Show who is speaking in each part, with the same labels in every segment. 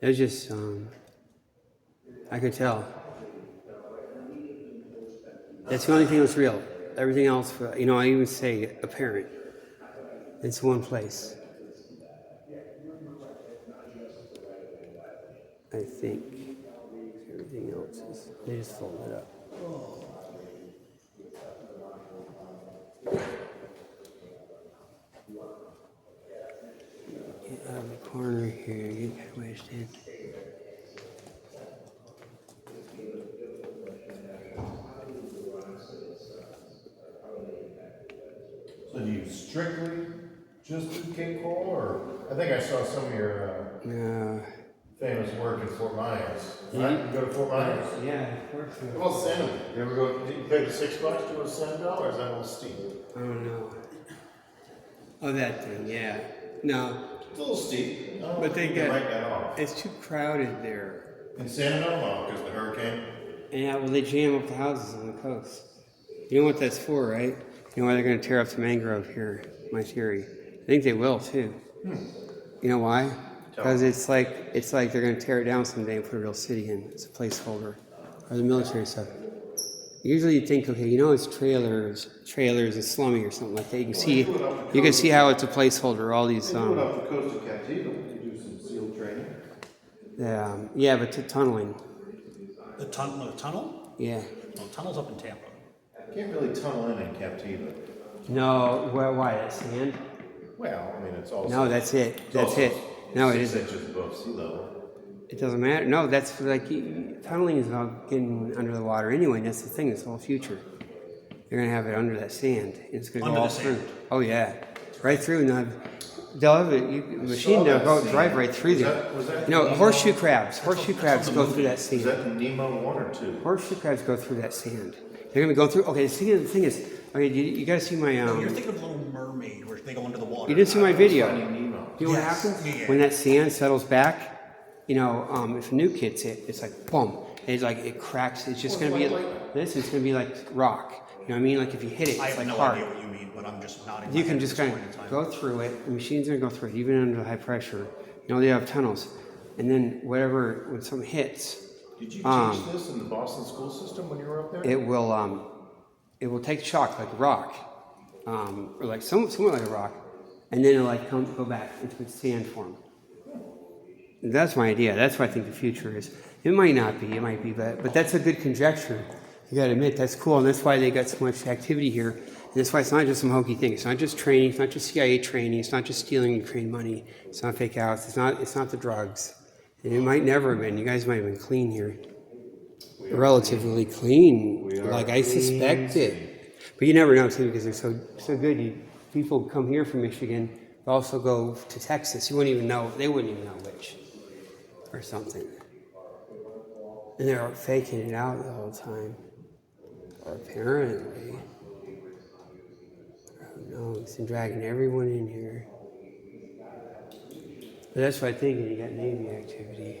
Speaker 1: It was just, um, I could tell. That's the only thing that's real. Everything else, uh, you know, I even say apparent. It's one place. I think everything else is, they just fold it up. Get out of the corner here, get halfway stand.
Speaker 2: So do you strictly just do Cape Coral, or, I think I saw some of your uh,
Speaker 1: No.
Speaker 2: famous work in Fort Myers. Right, you go to Fort Myers?
Speaker 1: Yeah, of course.
Speaker 2: How about Santa? You ever go, did you pay the six bucks to go to Santa dollars, that was steep.
Speaker 1: I don't know. Oh, that thing, yeah. No,
Speaker 2: It's a little steep.
Speaker 1: But they get-
Speaker 2: Right that off.
Speaker 1: it's too crowded there.
Speaker 2: In Santa, no, because the hurricane.
Speaker 1: And yeah, well, they jam up the houses on the coast. You know what that's for, right? You know why they're going to tear up the mangrove here? My theory. I think they will too. You know why? Because it's like it's like they're going to tear it down someday and put a real city in. It's a placeholder, or the military stuff. Usually, you think, okay, you know, it's trailers, trailers, and slummy or something like that. You can see,
Speaker 3: do it on the
Speaker 1: you can see how it's a placeholder. All these,
Speaker 2: Uh-huh.
Speaker 3: They do it
Speaker 1: um,
Speaker 3: off the coast of Captiva, we could do some seal training.
Speaker 1: yeah, um, yeah, but t- tunneling,
Speaker 4: The tunnel, the tunnel?
Speaker 1: yeah.
Speaker 4: No, tunnel's up in Tampa.
Speaker 2: Can't really tunnel in in Captiva.
Speaker 1: No, why? why that sand?
Speaker 2: Well, I mean, it's also.
Speaker 1: No, that's it.
Speaker 2: it's
Speaker 1: That's
Speaker 2: also
Speaker 1: it. No, it
Speaker 2: six
Speaker 1: isn't.
Speaker 2: inches above sea level.
Speaker 1: It doesn't matter. No, that's like you- tunneling is about getting under the water anyway. And that's the thing. This whole future, they're gonna have it under that sand. and It's gonna
Speaker 4: Under
Speaker 1: go all
Speaker 4: the
Speaker 1: through.
Speaker 4: sand.
Speaker 1: Oh yeah, right through. And I've, they'll have it. You, machine they'll
Speaker 2: that
Speaker 1: go
Speaker 2: scene.
Speaker 1: drive right through
Speaker 2: Was
Speaker 1: there.
Speaker 2: that- was that
Speaker 1: no
Speaker 2: the-
Speaker 1: horseshoe crabs. Horseshoe
Speaker 4: that's
Speaker 1: crabs
Speaker 4: on
Speaker 1: go
Speaker 4: the
Speaker 1: through that sand.
Speaker 2: Is that in Nemo one or two?
Speaker 1: horseshoe crabs go through that sand. They're gonna be going through. Okay, see, the thing is, okay, you, you gotta see my. Um,
Speaker 4: You're thinking of Little Mermaid, where they go under the water.
Speaker 1: you didn't see my video.
Speaker 2: Finding Nemo.
Speaker 1: You know
Speaker 4: Yes.
Speaker 1: what happens
Speaker 4: Yeah, yeah.
Speaker 1: when that sand settles back? You know, um, if a nuke hits it, it's like boom. It's like it cracks. It's just gonna be this. It's gonna be like rock. You know what I mean? Like if you hit it, it's
Speaker 4: I have
Speaker 1: like
Speaker 4: no
Speaker 1: hard.
Speaker 4: idea what you mean, but I'm just nodding.
Speaker 1: You
Speaker 4: my
Speaker 1: can
Speaker 4: head
Speaker 1: just
Speaker 4: at this
Speaker 1: kind
Speaker 4: point in
Speaker 1: of
Speaker 4: time.
Speaker 1: go through it. The machine's gonna go through it, even under high pressure. You know they have tunnels, and then whatever when something hits,
Speaker 2: Did you
Speaker 1: Um,
Speaker 2: teach this in the Boston school system when you were up there?
Speaker 1: it will um, it will take shock like a rock, um, or like some, somewhat like a rock, and then it'll like come go back into its sand form. That's my idea. That's what I think the future is. It might not be. It might be, but but that's a good conjecture. You got to admit that's cool, and that's why they got so much activity here. And that's why it's not just some hokey thing. It's not just training. It's not just CIA training. It's not just stealing Ukraine money. It's not fake outs. It's not. It's not the drugs. And it might never have been. You guys might have been clean here relatively clean, like I suspected. But you never know too because they're so so good. You, people come here from Michigan, but also go to Texas. You wouldn't even know. They wouldn't even know which, or something. And they're faking it out the whole time, apparently. Who knows? And dragging everyone in here. But that's what I think. You got Navy activity.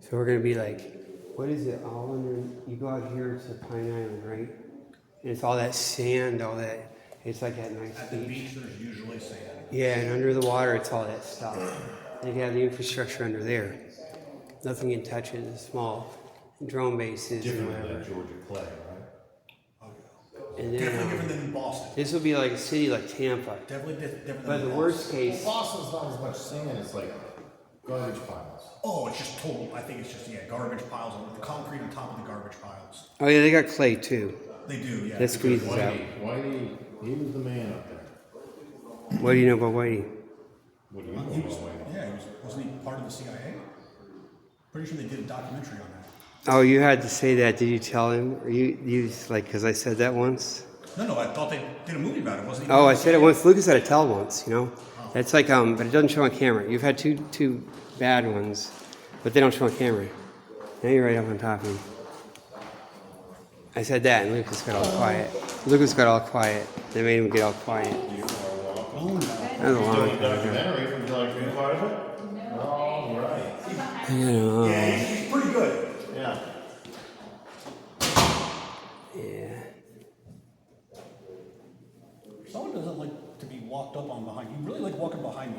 Speaker 1: So we're gonna be like, what is it all under? You go out here to Pine Island, right? And it's all that sand, all that. It's like that nice
Speaker 4: At the
Speaker 1: beach.
Speaker 4: beach, there's usually sand.
Speaker 1: Yeah, and under the water, it's all that stuff. They have the infrastructure under there. Nothing can touch it. The small drone bases and
Speaker 2: Different than
Speaker 1: whatever.
Speaker 2: Georgia Clay, right?
Speaker 1: And
Speaker 4: Definitely
Speaker 1: then um,
Speaker 4: different than Boston.
Speaker 1: this will be like a city like Tampa.
Speaker 4: Definitely di- different than
Speaker 1: But the
Speaker 4: Boston.
Speaker 1: worst case,
Speaker 2: Boston's not as much sand, it's like garbage piles.
Speaker 4: Oh, it's just total. I think it's just yeah, garbage piles on the concrete on top of the garbage piles.
Speaker 1: oh yeah, they got clay too.
Speaker 4: They do, yeah.
Speaker 1: That squeezes out.
Speaker 2: Whitey, Whitey, he was the man up there.
Speaker 1: What do you know about Whitey?
Speaker 2: What do you
Speaker 4: He
Speaker 2: know
Speaker 4: was,
Speaker 2: about Whitey?
Speaker 4: yeah, he was, wasn't he part of the CIA? Pretty sure they did a documentary on that.
Speaker 1: Oh, you had to say that. Did you tell him? Or you you just, like because I said that once.
Speaker 4: No, no, I thought they did a movie about it. Wasn't he?
Speaker 1: Oh, I said it once. Lucas had a tell once, you know. That's like, um, but it doesn't show on camera. You've had two two bad ones, but they don't show on camera. Now you're right up on top of me. I said that, and Lucas got all quiet. Lucas got all quiet. They made him get all quiet. That was a long
Speaker 2: Doing a documentary, would you like to be part of it? All right,
Speaker 1: I don't know.
Speaker 4: Yeah, he's pretty good.
Speaker 2: yeah.